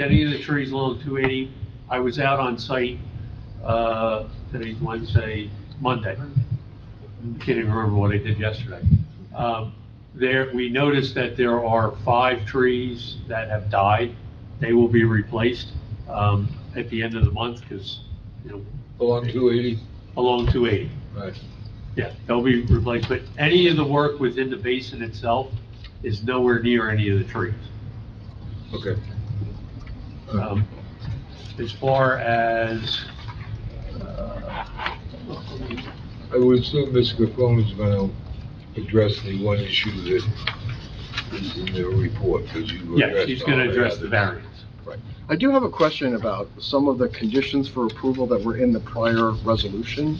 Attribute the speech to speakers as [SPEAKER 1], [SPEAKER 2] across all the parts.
[SPEAKER 1] Any of the trees along 280, I was out on site, uh, today's Wednesday, Monday. Can't even remember what I did yesterday. Um, There, we noticed that there are five trees that have died. They will be replaced um, at the end of the month because, you know,
[SPEAKER 2] Along two eighty,
[SPEAKER 1] along 280.
[SPEAKER 2] right.
[SPEAKER 1] Yeah, they'll be replaced, but any of the work within the basin itself is nowhere near any of the trees.
[SPEAKER 2] Okay.
[SPEAKER 1] Um, As far as, uh,
[SPEAKER 2] I would assume Mr. Capone is gonna address the one issue that is in their report, because you addressed.
[SPEAKER 1] yes, he's gonna
[SPEAKER 2] all
[SPEAKER 1] address the
[SPEAKER 2] others.
[SPEAKER 1] variance.
[SPEAKER 3] I do have a question about some of the conditions for approval that were in the prior resolution.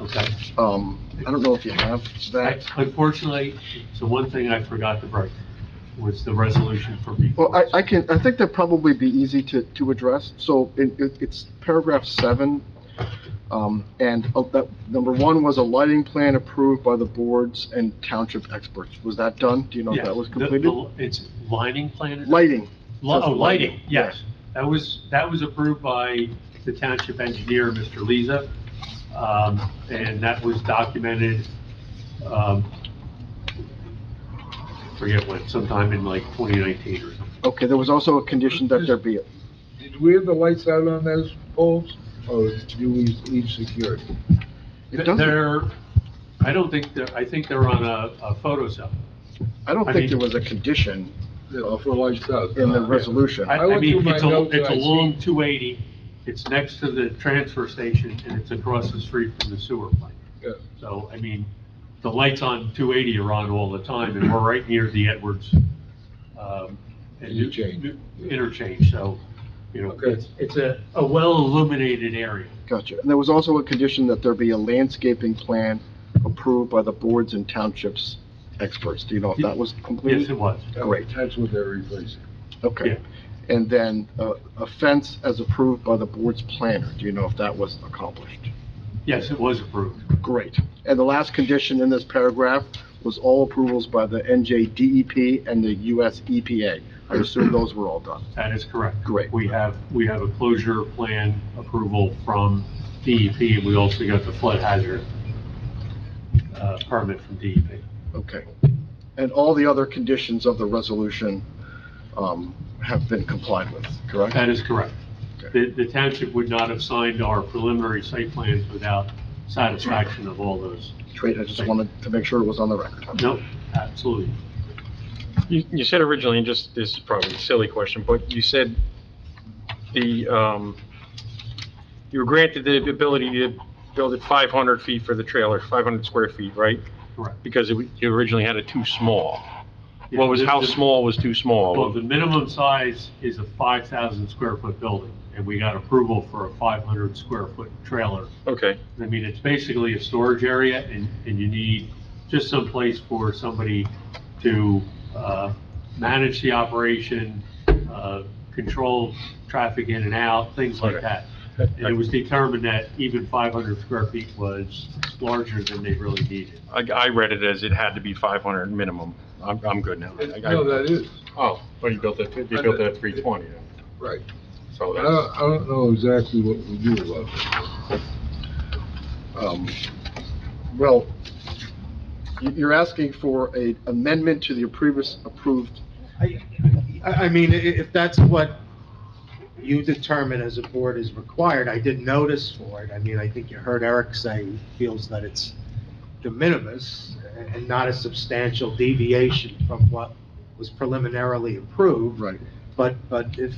[SPEAKER 1] Okay.
[SPEAKER 3] Um, I don't know if you have
[SPEAKER 1] I-
[SPEAKER 3] that.
[SPEAKER 1] Unfortunately, so one thing I forgot to bring was the resolution for
[SPEAKER 3] Well,
[SPEAKER 1] before.
[SPEAKER 3] I, I can, I think that'd probably be easy to, to address. So it, it- it's paragraph seven. Um, and of that, number one was a lighting plan approved by the boards and township experts. Was that done? Do you know if
[SPEAKER 1] Yes,
[SPEAKER 3] that was
[SPEAKER 1] the-
[SPEAKER 3] completed?
[SPEAKER 1] the- It's lining plan?
[SPEAKER 3] Lighting,
[SPEAKER 1] Li-
[SPEAKER 3] says
[SPEAKER 1] Oh, lighting,
[SPEAKER 3] lighting,
[SPEAKER 1] yes. That was, that was approved by the township engineer, Mr. Leza, um, and that was documented, um, forget when, sometime in like 2019 or something.
[SPEAKER 3] okay, there was also a condition that there be,
[SPEAKER 2] Did we have the lights out on those poles, or do we leave security?
[SPEAKER 3] it doesn't,
[SPEAKER 1] They're, I don't think, they're- I think they're on a a photo cell.
[SPEAKER 3] I don't
[SPEAKER 1] I mean-
[SPEAKER 3] think there was a condition
[SPEAKER 2] Uh, For lights out? uh,
[SPEAKER 3] in the resolution.
[SPEAKER 1] I,
[SPEAKER 2] I
[SPEAKER 1] I
[SPEAKER 2] went
[SPEAKER 1] mean,
[SPEAKER 2] through my
[SPEAKER 1] it's a,
[SPEAKER 2] notes and
[SPEAKER 1] it's a
[SPEAKER 2] I see-
[SPEAKER 1] long 280, it's next to the transfer station, and it's across the street from the sewer plant.
[SPEAKER 2] Yeah.
[SPEAKER 1] So, I mean, the lights on 280 are on all the time, and we're right near the Edwards, um, and New-
[SPEAKER 2] Interchange.
[SPEAKER 1] New- Interchange, so, you know,
[SPEAKER 2] Okay.
[SPEAKER 1] it's, it's a, a well-illuminated area.
[SPEAKER 3] Gotcha. And there was also a condition that there be a landscaping plan approved by the boards and townships experts. Do you know if that was
[SPEAKER 1] Yes, it
[SPEAKER 3] completed?
[SPEAKER 1] was.
[SPEAKER 3] Great.
[SPEAKER 2] That's what they're replacing.
[SPEAKER 3] Okay. And then uh, a fence as approved by the board's planner. Do you know if that was accomplished?
[SPEAKER 1] Yes, it was approved.
[SPEAKER 3] Great. And the last condition in this paragraph was all approvals by the NJDEP E and the US EPA. I assume those were all done.
[SPEAKER 1] That is correct.
[SPEAKER 3] Great.
[SPEAKER 1] We have, we have a closure plan approval from DEP, and we also got the flood hazard uh, permit from DEP.
[SPEAKER 3] Okay. And all the other conditions of the resolution um, have been complied with, correct?
[SPEAKER 1] That is correct. The the township would not have signed our preliminary site plans without satisfaction of all those.
[SPEAKER 3] Great, I just wanted to make sure it was on the record.
[SPEAKER 1] Nope, absolutely.
[SPEAKER 4] You, you said originally, and just, this is probably a silly question, but you said the, um, you were granted the ability to build it 500 feet for the trailer, 500 square feet, right?
[SPEAKER 1] Correct.
[SPEAKER 4] Because it, you originally had it too small. What was,
[SPEAKER 1] Yeah,
[SPEAKER 4] how
[SPEAKER 1] the- the-
[SPEAKER 4] small was too
[SPEAKER 1] Well,
[SPEAKER 4] small?
[SPEAKER 1] the minimum size is a 5,000 square foot building, and we got approval for a 500 square foot trailer
[SPEAKER 4] Okay,
[SPEAKER 1] I mean, it's basically a storage area and, and you need just some place for somebody to, uh, manage the operation, uh, control traffic in and out, things like that. And it was determined that even five hundred square feet was larger than they really needed.
[SPEAKER 4] I, I read it as it had to be 500 minimum. I'm, I'm good now. I- I-
[SPEAKER 2] No, that is,
[SPEAKER 4] Oh, well, you built it, you built it at 320, then.
[SPEAKER 2] right.
[SPEAKER 4] so
[SPEAKER 2] I
[SPEAKER 4] that's,
[SPEAKER 2] don't, I don't know exactly what we do about it.
[SPEAKER 3] Um, Well, you- you're asking for a amendment to the previous approved,
[SPEAKER 5] I, I I mean, i- if that's what you determine as a board is required, I did notice for it. I mean, I think you heard Eric say he feels that it's de minimis and not a substantial deviation from what was preliminarily approved.
[SPEAKER 3] right,
[SPEAKER 5] But, but if,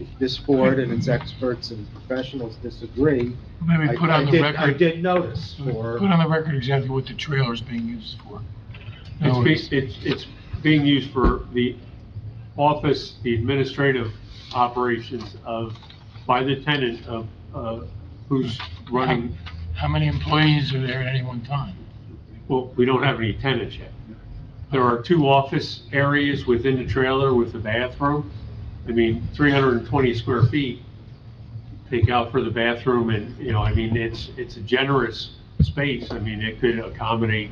[SPEAKER 5] if this board and its experts and professionals disagree,
[SPEAKER 6] Maybe
[SPEAKER 5] I
[SPEAKER 6] put on
[SPEAKER 5] I
[SPEAKER 6] the
[SPEAKER 5] did, I
[SPEAKER 6] record,
[SPEAKER 5] did notice
[SPEAKER 6] put
[SPEAKER 5] for.
[SPEAKER 6] on the record exactly what the trailer's being used for.
[SPEAKER 1] It's,
[SPEAKER 6] No,
[SPEAKER 1] be- it's, it's being used for the office, the administrative operations of, by the tenant of, uh, who's running,
[SPEAKER 6] How many employees are there at any one time?
[SPEAKER 1] Well, we don't have any tenants yet. There are two office areas within the trailer with a bathroom. I mean, 320 square feet, take out for the bathroom and, you know, I mean, it's, it's a generous space. I mean, it could accommodate,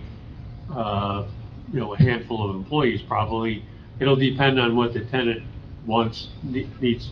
[SPEAKER 1] uh, you know, a handful of employees probably. It'll depend on what the tenant wants, ne- needs